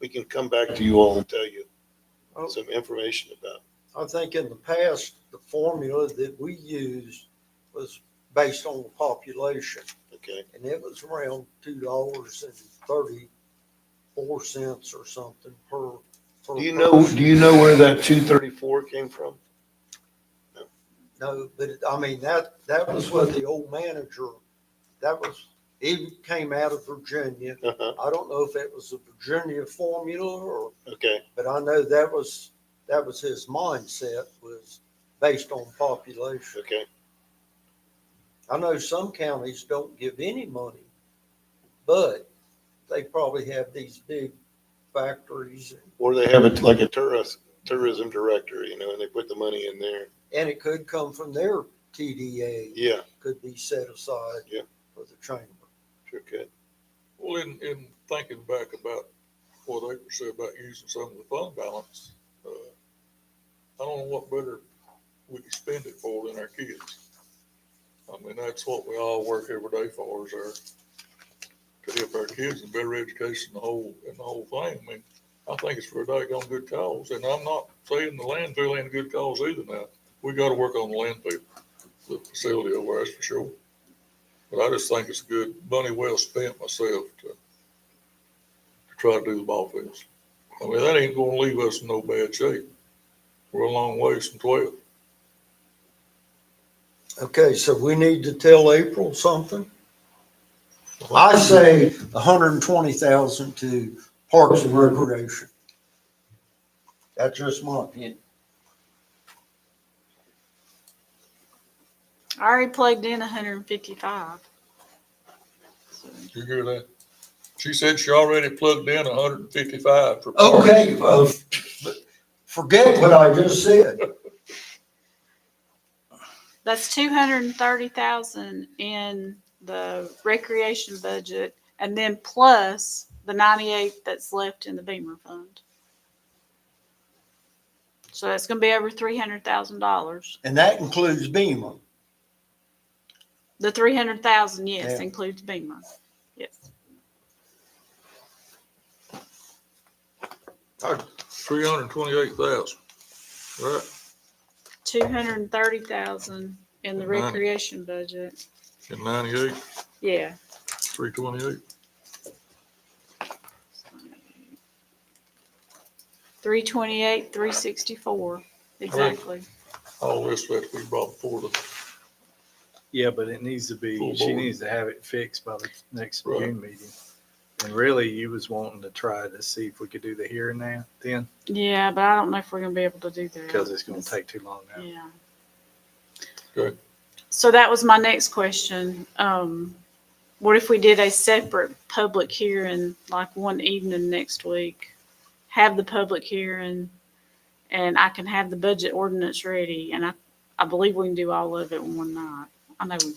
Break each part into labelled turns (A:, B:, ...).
A: we can come back to you all and tell you
B: Oh.
A: some information about.
B: I think in the past, the formula that we used was based on the population,
A: it, Okay,
B: and it was around two dollars and thirty-four cents or something per. per
A: do you know,
B: person.
A: do you know where that two thirty-four came from?
B: No, but it- I mean, that, that was what the old manager, that was, he came out of Virginia.
A: Uh-huh,
B: I don't know if it was the Virginia formula or,
A: okay,
B: but I know that was, that was his mindset was based on population.
A: okay,
B: I know some counties don't give any money, but they probably have these big factories
A: or they have it like a tourist, tourism director, you know, and they put the money in there,
B: and it could come from their TDA,
A: yeah,
B: could be set aside
A: Yeah.
B: for the chamber.
A: sure could,
C: Well, in, in thinking back about what April said about using some of the fund balance, uh, I don't know what better we could spend it for than our kids. I mean, that's what we all work every day for is our, to help our kids and better education, the whole, and the whole thing. I mean, I think it's for a doggone good cause, and I'm not saying the landfill ain't a good cause either now. We gotta work on the landfill, the facility over there, that's for sure. But I just think it's good, money well spent myself to, to try to do the ball fields. I mean, that ain't gonna leave us in no bad shape. We're a long ways from twelve.
B: Okay, so we need to tell April something? I say hundred and twenty thousand to Parks and Recreation. That's just my opinion.
D: I already plugged in hundred and fifty-five.
C: You hear that? She said she already plugged in hundred and fifty-five for. parks.
B: Okay, well, forget what I just said.
D: That's two hundred and thirty thousand in the recreation budget and then plus the ninety-eight that's left in the Beamer fund. So that's gonna be over three hundred thousand dollars.
B: And that includes Beamer.
D: The three hundred thousand, yes,
B: Yeah.
D: includes Beamer. Yes.
C: Three hundred and twenty-eight thousand, right?
D: Two hundred and thirty thousand in the
C: Good money.
D: recreation budget.
C: In ninety-eight,
D: Yeah.
C: three twenty-eight.
D: Three twenty-eight, three sixty-four, exactly.
C: All this that we brought before the,
E: Yeah, but it needs to be,
C: Full
E: she
C: board.
E: needs to have it fixed by the next
C: Right.
E: June meeting. And really, you was wanting to try to see if we could do the here and now then,
D: Yeah, but I don't know if we're gonna be able to do that.
E: because it's gonna take too long now.
D: Yeah.
C: Good.
D: So that was my next question. Um, what if we did a separate public hearing, like one evening next week? Have the public hearing and I can have the budget ordinance ready and I, I believe we can do all of it in one night. I know we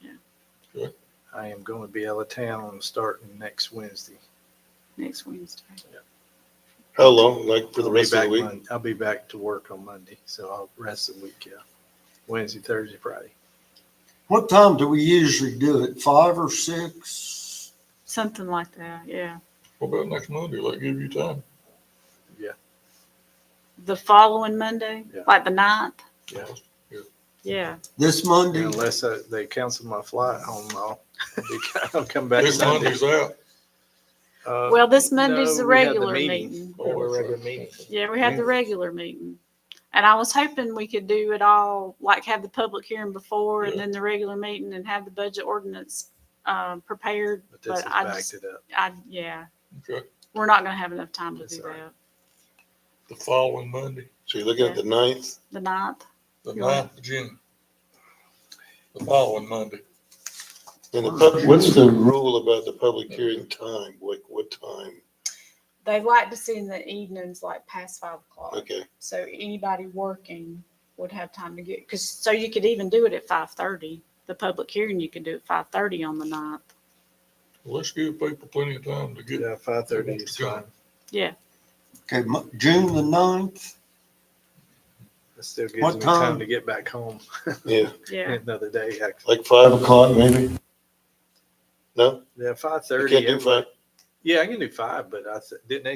D: can.
E: I am gonna be out of town starting next Wednesday.
D: next Wednesday.
A: how long, like for the
E: I'll be
A: rest of the
E: back
A: week?
E: Mon- I'll be back to work on Monday, so I'll rest the week, yeah. Wednesday, Thursday, Friday.
B: What time do we usually do it? Five or six?
D: Something like that, yeah.
C: what about next Monday? Let give you time.
D: The following Monday,
E: Yeah.
D: like the ninth?
E: Yeah.
D: Yeah.
B: This
A: Mm-hmm.
B: Monday?
E: Unless uh, they cancel my flight home, I'll, be- I'll come back.
C: This
E: Sunday.
C: Monday's out.
E: Uh,
D: Well, this Monday's
E: no,
D: the
E: we had the
D: regular
E: meeting.
D: meeting.
E: we have a regular meeting.
D: Yeah, we had the regular meeting. And I was hoping we could do it all, like have the public hearing before and
C: Yeah.
D: then the regular meeting and have the budget ordinance um, prepared.
E: But this
D: But
E: has
D: I
E: backed
D: just,
E: it up.
D: I, yeah,
C: Okay,
D: we're not gonna have enough time to
E: That's
D: do
E: all right.
D: that.
C: the following Monday.
A: So you're looking at the ninth,
D: The ninth,
C: The
D: You're right.
C: ninth of June. The following Monday.
A: and the pub, what's the rule about the public hearing time, like what time?
D: they like to see in the evenings, like past five o'clock.
A: Okay,
D: So anybody working would have time to get, because, so you could even do it at five thirty. The public hearing, you could do at five thirty on the ninth.
C: Let's give people plenty of time to get
E: Yeah, five thirty is fine.
B: Okay, Mo- June the ninth?
E: That still
B: What
E: gives me time
B: time?
E: to get back home
A: yeah,
D: Yeah,
E: another day, actually.
A: like five o'clock maybe? No,
E: Yeah, five
A: you can't
E: thirty.
A: do five.
E: Yeah, I can do five, but I s- didn't